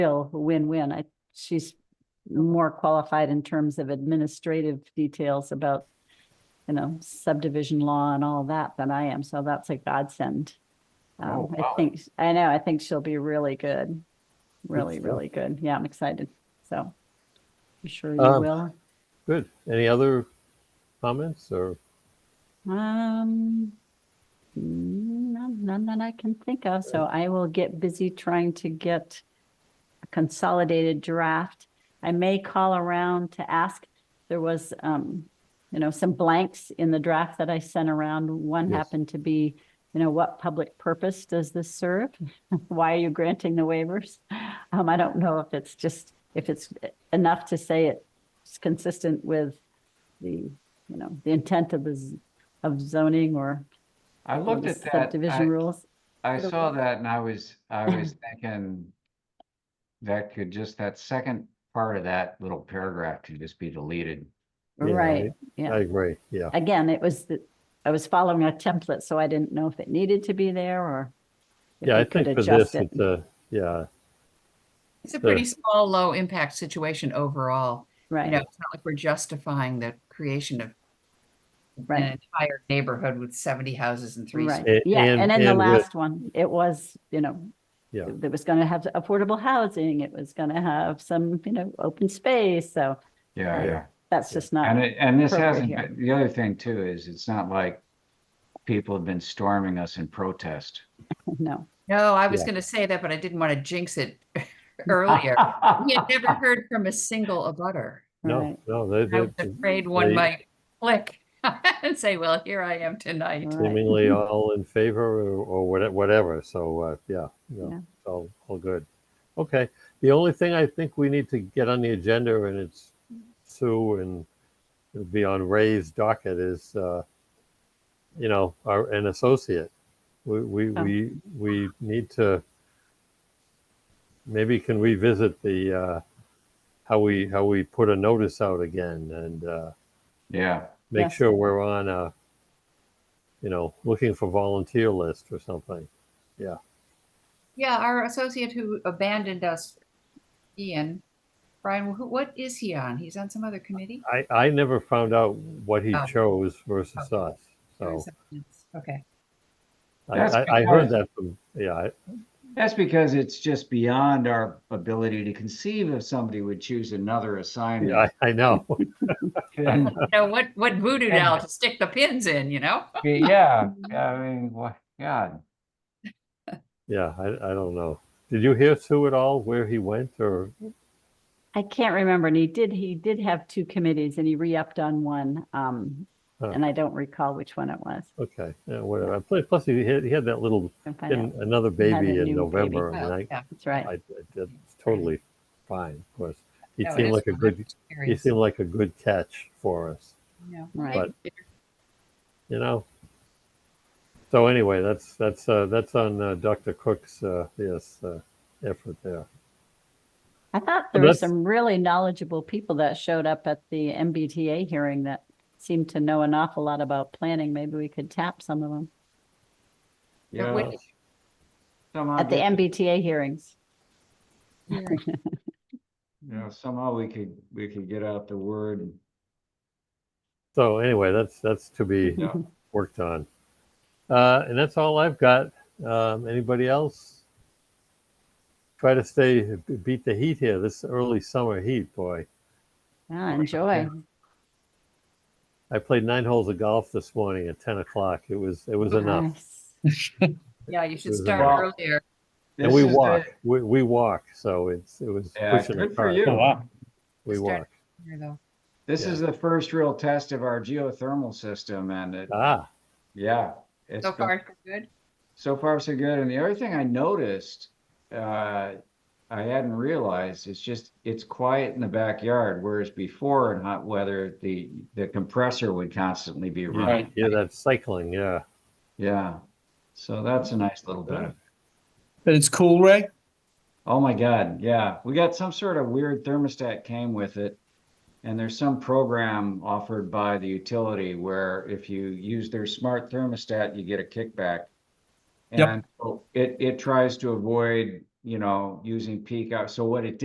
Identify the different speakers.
Speaker 1: still a win-win. I, she's more qualified in terms of administrative details about, you know, subdivision law and all that than I am. So that's a godsend.
Speaker 2: Oh,
Speaker 1: Um, I
Speaker 2: wow.
Speaker 1: think, I know, I think she'll be really good. Really,
Speaker 3: stuff.
Speaker 1: really good. Yeah, I'm excited. So I'm sure you
Speaker 3: Um,
Speaker 1: will.
Speaker 3: Good. Any other comments or,
Speaker 1: Um, none, none that I can think of, so I will get busy trying to get a consolidated draft. I may call around to ask, there was, um, you know, some blanks in the draft that I sent around. One
Speaker 3: Yes.
Speaker 1: happened to be, you know, what public purpose does this serve? Why are you granting the waivers? Um, I don't know if it's just, if it's enough to say it's consistent with the, you know, the intent of the, z- of zoning or
Speaker 2: I
Speaker 1: or
Speaker 2: looked
Speaker 1: the
Speaker 2: at that,
Speaker 1: subdivision
Speaker 2: I,
Speaker 1: rules.
Speaker 2: I
Speaker 1: It'll
Speaker 2: saw
Speaker 1: work.
Speaker 2: that and I was, I was thinking that could just, that second part of that little paragraph could just be deleted.
Speaker 3: Yeah,
Speaker 1: Right,
Speaker 3: I
Speaker 1: yeah.
Speaker 3: agree, yeah.
Speaker 1: Again, it was, the I was following a template, so I didn't know if it needed to be there or if
Speaker 3: Yeah,
Speaker 1: we
Speaker 3: I
Speaker 1: could
Speaker 3: think for
Speaker 1: adjust
Speaker 3: this,
Speaker 1: it.
Speaker 3: it's a, yeah,
Speaker 4: It's a
Speaker 3: Sure.
Speaker 4: pretty small, low impact situation overall. You know,
Speaker 1: Right,
Speaker 4: it's not like we're justifying the creation of an
Speaker 1: right,
Speaker 4: entire neighborhood with 70 houses and three.
Speaker 1: right.
Speaker 3: A-
Speaker 1: Yeah,
Speaker 3: and-
Speaker 1: and then the
Speaker 3: and with-
Speaker 1: last one, it was, you know,
Speaker 3: Yeah.
Speaker 1: it was going to have affordable housing. It was going to have some, you know, open space. So
Speaker 2: Yeah,
Speaker 3: Yeah.
Speaker 2: yeah.
Speaker 1: that's just
Speaker 2: And
Speaker 1: not,
Speaker 2: it, and this
Speaker 1: appropriate
Speaker 2: hasn't,
Speaker 1: here.
Speaker 2: been- the other thing too is it's not like people have been storming us in protest.
Speaker 1: no.
Speaker 4: No, I was
Speaker 3: Yeah.
Speaker 4: going to say that, but I didn't want to jinx it earlier. We had never heard from a single abutter.
Speaker 3: no,
Speaker 1: right,
Speaker 3: no, they
Speaker 4: I was
Speaker 3: did
Speaker 4: afraid one
Speaker 3: they-
Speaker 4: might click and say, well, here I am
Speaker 3: Uh.
Speaker 4: tonight.
Speaker 1: Right.
Speaker 3: seemingly all in favor or- or whate- whatever, so, uh, yeah,
Speaker 1: Yeah.
Speaker 3: no, all, all good. Okay, the only thing I think we need to get on the agenda, and it's Sue and it'll be on Ray's docket, is, uh, you know, our, an associate. We, we,
Speaker 1: Oh.
Speaker 3: we, we need to, maybe can revisit the, uh, how we, how we put a notice out again and, uh,
Speaker 2: Yeah,
Speaker 3: make
Speaker 1: Yes.
Speaker 3: sure we're on a, you know, looking for volunteer list or something.
Speaker 4: Yeah, our associate who abandoned us, Ian, Brian, who, what is he on? He's on some other committee?
Speaker 3: I, I never found out what he
Speaker 1: Ah.
Speaker 4: Oh.
Speaker 3: chose versus
Speaker 4: Oh.
Speaker 3: us.
Speaker 4: Or
Speaker 3: So
Speaker 4: is that- Okay.
Speaker 3: I,
Speaker 2: That's
Speaker 3: I, I heard
Speaker 2: because-
Speaker 3: that from, yeah, I-
Speaker 2: that's because it's just beyond our ability to conceive if somebody would choose another
Speaker 3: yeah,
Speaker 2: assignment.
Speaker 3: I, I know.
Speaker 2: And
Speaker 4: You know, what, what voodoo doll to stick the pins in, you know?
Speaker 2: Yeah, I mean, what, God,
Speaker 3: Yeah, I, I don't know. Did you hear Sue at all where he went or?
Speaker 1: I can't remember. And he did, he did have two committees and he re-upped on one. Um,
Speaker 3: Huh.
Speaker 1: and I don't recall which one it was.
Speaker 3: Okay, yeah, whatever. Plus, plus he had, he had that little,
Speaker 1: I can find out.
Speaker 3: and another baby
Speaker 1: new baby.
Speaker 3: in November. and
Speaker 4: Well,
Speaker 3: I,
Speaker 4: yeah.
Speaker 1: That's right.
Speaker 3: I, I- that's totally fine, of course. He
Speaker 1: Oh,
Speaker 4: No, it
Speaker 3: seemed
Speaker 4: is
Speaker 3: like a
Speaker 4: one
Speaker 3: good, he
Speaker 4: experience,
Speaker 3: seemed like a good catch for us.
Speaker 4: you know.
Speaker 1: Right.
Speaker 4: But-
Speaker 3: you know. So anyway, that's that's uh, that's on uh, Dr. Cook's uh, yes uh, effort there.
Speaker 1: I thought
Speaker 3: Well,
Speaker 1: there were
Speaker 3: that's-
Speaker 1: some really knowledgeable people that showed up at the MBTA hearing that seemed to know an awful lot about planning. Maybe we could tap some of them
Speaker 4: But
Speaker 2: yeah.
Speaker 3: Uh,
Speaker 4: when-
Speaker 2: somehow
Speaker 1: at the
Speaker 2: get-
Speaker 1: MBTA hearings.
Speaker 2: You know, somehow we could, we could get out the word.
Speaker 3: So anyway, that's that's to be
Speaker 2: Yeah.
Speaker 3: worked on, uh, and that's all I've got. Um, anybody else? Try to stay beat the heat here. This early summer heat, boy.
Speaker 1: Yeah, Ah, enjoy.
Speaker 3: I played nine holes of golf this morning at ten o'clock. It was it was
Speaker 2: Mm-hmm.
Speaker 3: enough,
Speaker 1: Nice.
Speaker 4: Yeah, you should
Speaker 3: There's a
Speaker 4: start
Speaker 2: lot.
Speaker 4: earlier.
Speaker 3: and
Speaker 2: This
Speaker 3: we
Speaker 2: is the-
Speaker 3: walk. We, we walk. So it's it was
Speaker 2: Yeah,
Speaker 3: pushing the
Speaker 2: good for
Speaker 3: cart.
Speaker 2: you.
Speaker 3: We
Speaker 4: Start-
Speaker 3: walk.
Speaker 4: here, though.
Speaker 2: This
Speaker 3: Yeah.
Speaker 2: is the first real test of our geothermal system and it,
Speaker 3: Ah,
Speaker 2: yeah. it's
Speaker 4: So
Speaker 2: been-
Speaker 4: far, so good.
Speaker 2: So far, so good. And the other thing I noticed, uh, I hadn't realized, it's just, it's quiet in the backyard, whereas before in hot weather, the, the compressor would constantly be running.
Speaker 3: yeah, that's cycling. Yeah.
Speaker 2: Yeah. So that's a nice little
Speaker 3: Yeah.
Speaker 2: benefit.
Speaker 5: But it's cool, Ray?
Speaker 2: Oh my God, yeah. We got some sort of weird thermostat came with it. And there's some program offered by the utility where if you use their smart thermostat, you get a kickback.
Speaker 5: Yep.
Speaker 2: And so it, it tries to avoid you know, using peak hours. So what it